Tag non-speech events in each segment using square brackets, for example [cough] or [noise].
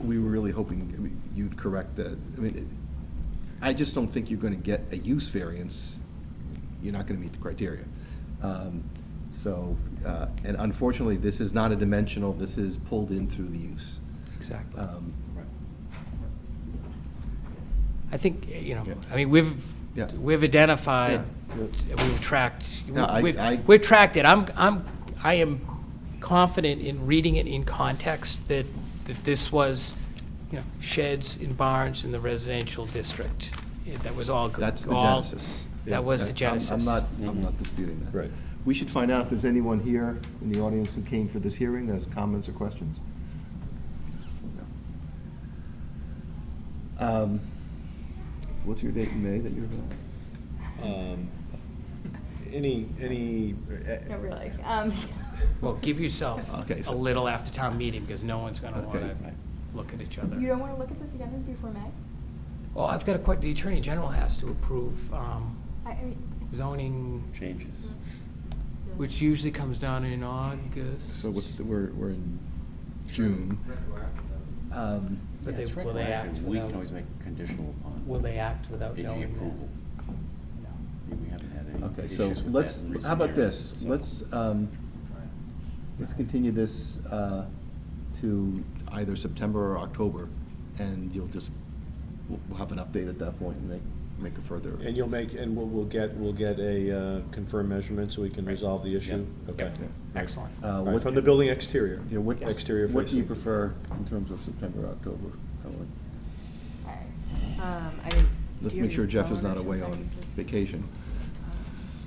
we were really hoping, I mean, you'd correct that. I mean, it- I just don't think you're going to get a use variance. You're not going to meet the criteria. Um, So, uh, and unfortunately, this is not a dimensional, this is pulled in through the use. Exactly. Um, I think, you know, Yeah. I mean, we've, Yeah. we've identified, Yeah, we've tracked, No, I- we've, I- we've tracked it. I'm, I'm, I am confident in reading it in context that, that this was, you know, sheds and barns in the residential district. Yeah, That was all. go- That's the all- genesis. That was the I'm- genesis. I'm not, I'm not disputing that. Right. We should find out if there's anyone here in the audience who came for this hearing, has comments or questions. Um, What's your date in May that you're available? Um, Any, any. eh, Not really. Um, [laughs] Well, give yourself Okay, a so- little after town meeting, because no one's gonna Okay. wanna look at each other. You don't want to look at this again before May? Well, I've got a que, the Attorney General has to approve, um, I, I mean, zoning, Changes. which usually comes down in August. So what's, the- we're, we're in June. Um, But Yeah, they, it's will they act retroactive. without? We can always make it conditional upon. Will they act without AG knowing that? approval. No. I mean, We haven't had any Okay, issues so with that let's, in recent how about years, this? so- Let's, um, let's continue this uh, to either September or October, and you'll just, we'll we'll have an update at that point and make, make a further. And you'll make, and we'll, we'll get, we'll get a uh, confirmed measurement so we can resolve the issue? Yeah. Okay. Yeah. Excellent. Uh, All right, what- From the building exterior? Yeah, what, Exterior what do you facing. prefer in terms of September, October? Helen? all right. Um, I didn't. Let's do you make sure have Jeff your is phone not or away something? I on can just- vacation.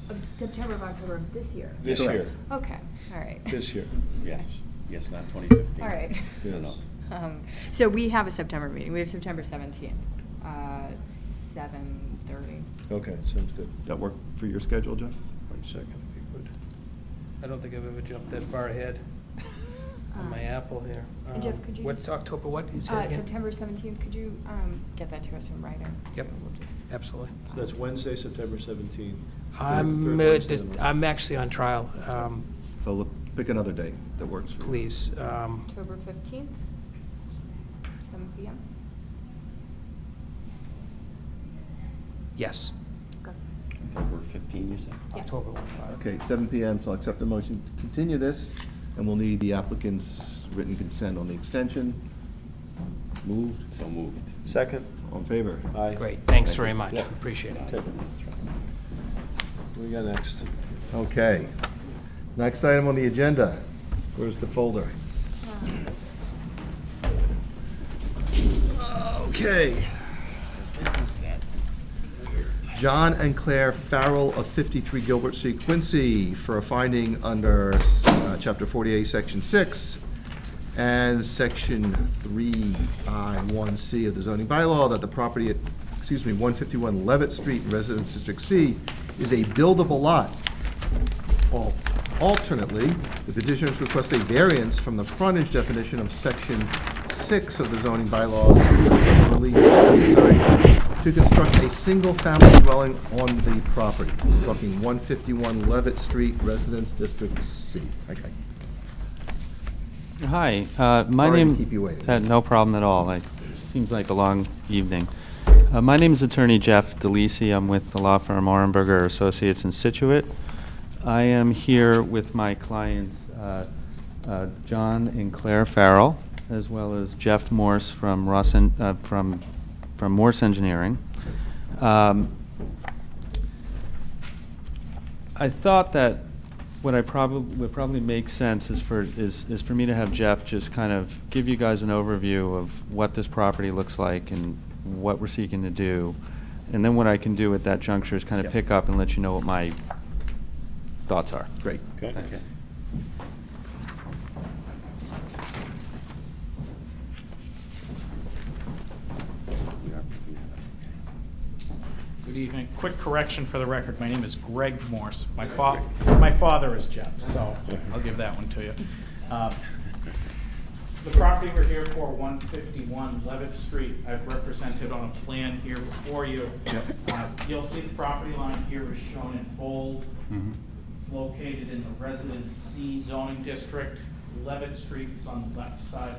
Of September of October of this year? This year, Correct. Okay, all right. this year. Yes, yes, not 2015. [laughs] All right. No, no. Um, So we have a September meeting. We have September 17th, uh, [laughs] 7:30. Okay, sounds good. That work for your schedule, Jeff? One second, if you could. I don't think I've ever jumped that far ahead on my Um, apple here. and Jeff, Um, could you What's just- October, what? You say Uh, again? September 17th, could you um, get that to us in writing? Yep. We'll just- Absolutely. So That's Wednesday, September 17th. I'm, Third uh, Wednesday dis- of the month. I'm actually on trial, um, So look, pick another day that works for you. please. um, October 15th, 7 PM. Yes. October 15, you said? Yeah. October. one, five. Okay, seven PM, so I'll accept the motion to continue this, and we'll need the applicant's written consent on the extension. Moved, So moved. Second, all in favor? aye. Great, thanks very much, Yeah. appreciate it. Okay, That's right. what do we got next? Okay. Next item on the agenda, where's the folder? Um, Okay. John and Claire Farrell of 53 Gilbert C. Quincy for a finding under uh, Chapter 48, Section 6, and Section 3I1C of the zoning bylaw that the property at, excuse me, 151 Levitt Street, Residence District C, is a buildable lot. Al- Alternately, the petitioners request a variance from the frontage definition of Section 6 of the zoning bylaws for relief necessary to construct a single-family dwelling on the property, talking 151 Levitt Street, Residence District C. Okay. Hi, uh, my Sorry to name... keep you waiting. Uh, No problem at all. It seems like a long evening. Uh, My name is Attorney Jeff DeLisi. I'm with the law firm Orenberger Associates in Situate. I am here with my clients, uh, uh, John and Claire Farrell, as well as Jeff Morse from Ross, En- uh, from from Morse Engineering. Um, I thought that what I probably, would probably make sense is for, is, is for me to have Jeff just kind of give you guys an overview of what this property looks like and what we're seeking to do. And then what I can do at that juncture is kind of pick up and let you know what my thoughts are. Great. Okay. We are picking that up. Good evening. Quick correction for the record, my name is Greg Morse. My fa, my father is Jeff, so I'll give that one to you. Uh, [laughs] The property we're here for, 151 Levitt Street, I've represented on a plan here before you. Uh, You'll see the property line here is shown in bold. It's located in the Residence C zoning district. Levitt Street is on the left side